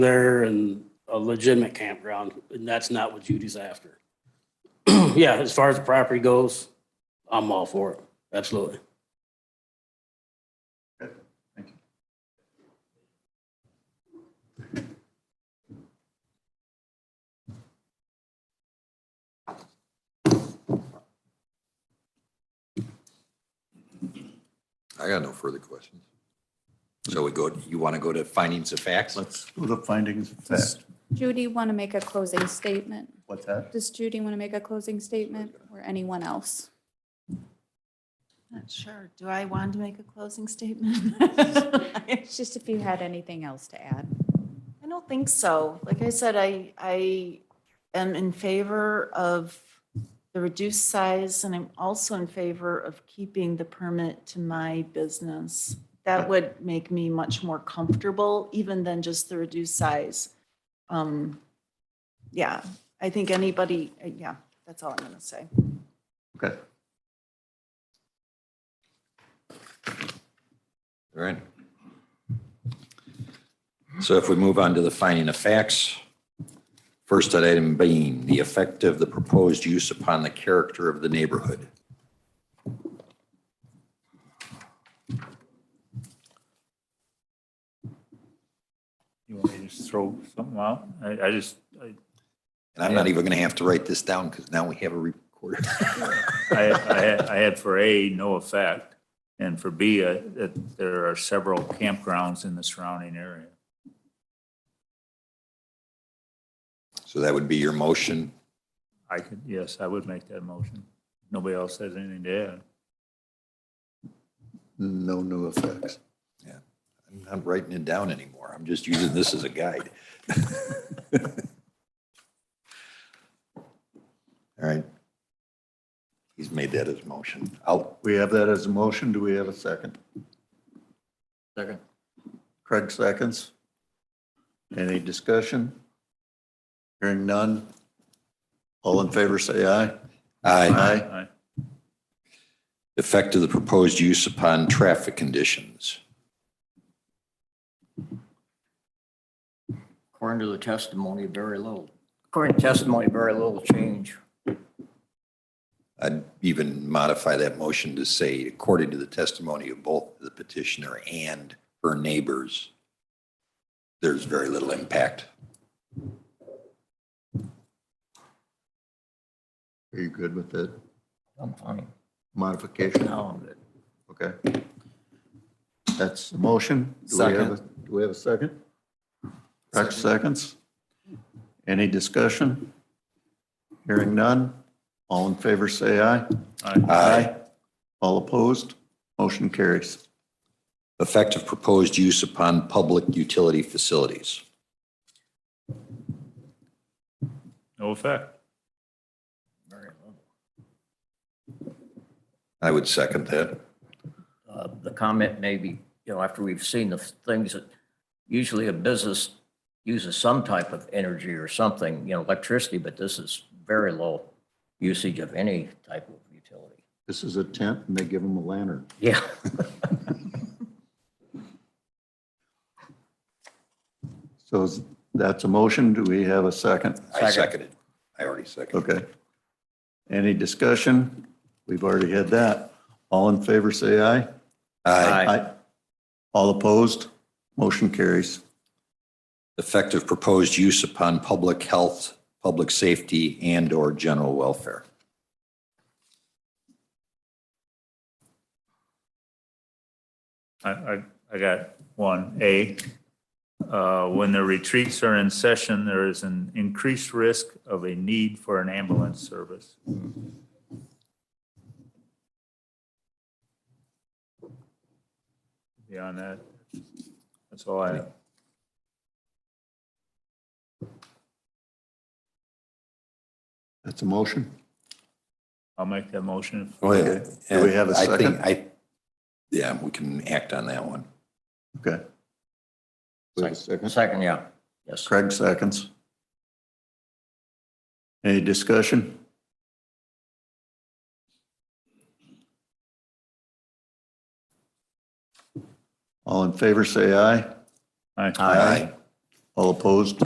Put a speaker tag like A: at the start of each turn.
A: there and a legitimate campground, and that's not what Judy's after. Yeah, as far as the property goes, I'm all for it, absolutely.
B: I got no further questions. So we go, you want to go to findings of facts?
C: Let's do the findings of fact.
D: Judy want to make a closing statement?
C: What's that?
D: Does Judy want to make a closing statement or anyone else?
E: Not sure. Do I want to make a closing statement?
D: It's just if you had anything else to add.
E: I don't think so. Like I said, I, I am in favor of the reduced size and I'm also in favor of keeping the permit to my business. That would make me much more comfortable even than just the reduced size. Um, Yeah, I think anybody, uh, yeah, that's all I'm going to say.
C: Okay.
B: All right. So if we move on to the finding of facts, first item being the effect of the proposed use upon the character of the neighborhood.
C: You want me to just throw something out? I, I just, I,
B: And I'm not even going to have to write this down because now we have a recorder.
C: I, I had- I had for A, no effect, and for B, uh, that there are several campgrounds in the surrounding area.
B: So that would be your motion.
C: I could, yes, I would make that motion. Nobody else has anything to add.
B: No new effects. Yeah, I'm not writing it down anymore. I'm just using this as a guide. All right. He's made that his motion. I'll,
F: We have that as a motion. Do we have a second?
C: Second.
F: Craig seconds. Any discussion? Hearing none. All in favor, say aye.
B: I,
F: Aye.
C: Aye.
B: effect of the proposed use upon traffic conditions.
G: According to the testimony, very little. According to testimony, very little change.
B: I'd even modify that motion to say, according to the testimony of both the petitioner and her neighbors, there's very little impact.
F: Are you good with that
G: I'm fine.
F: modification?
G: Now I'm good.
F: Okay. That's the motion. Do we have a- Do we have a second? Craig seconds. Any discussion? Hearing none. All in favor, say aye.
C: Aye.
B: Aye.
F: All opposed? Motion carries.
B: Effect of proposed use upon public utility facilities.
C: No effect.
B: I would second that.
G: Uh, The comment may be, you know, after we've seen the things that usually a business uses some type of energy or something, you know, electricity, but this is very low usage of any type of utility.
F: This is a tent and they give them a lantern.
G: Yeah.
F: So is- that's a motion. Do we have a second?
B: I
G: Second.
B: seconded. I already seconded.
F: Okay. Any discussion? We've already had that. All in favor, say aye.
B: Aye.
F: All opposed? Motion carries.
B: Effect of proposed use upon public health, public safety, and/or general welfare.
C: I, I, I got one, A. Uh, When the retreats are in session, there is an increased risk of a need for an ambulance service. Beyond that, that's all I,
F: That's a motion.
C: I'll make that motion.
F: Okay. Do we have a
B: I think-
F: second?
B: I, yeah, we can act on that one.
F: Okay. We have a second.
G: Second, yeah. Yes.
F: Craig seconds. Any discussion? All in favor, say aye.
C: Aye.
G: Aye.
F: All opposed?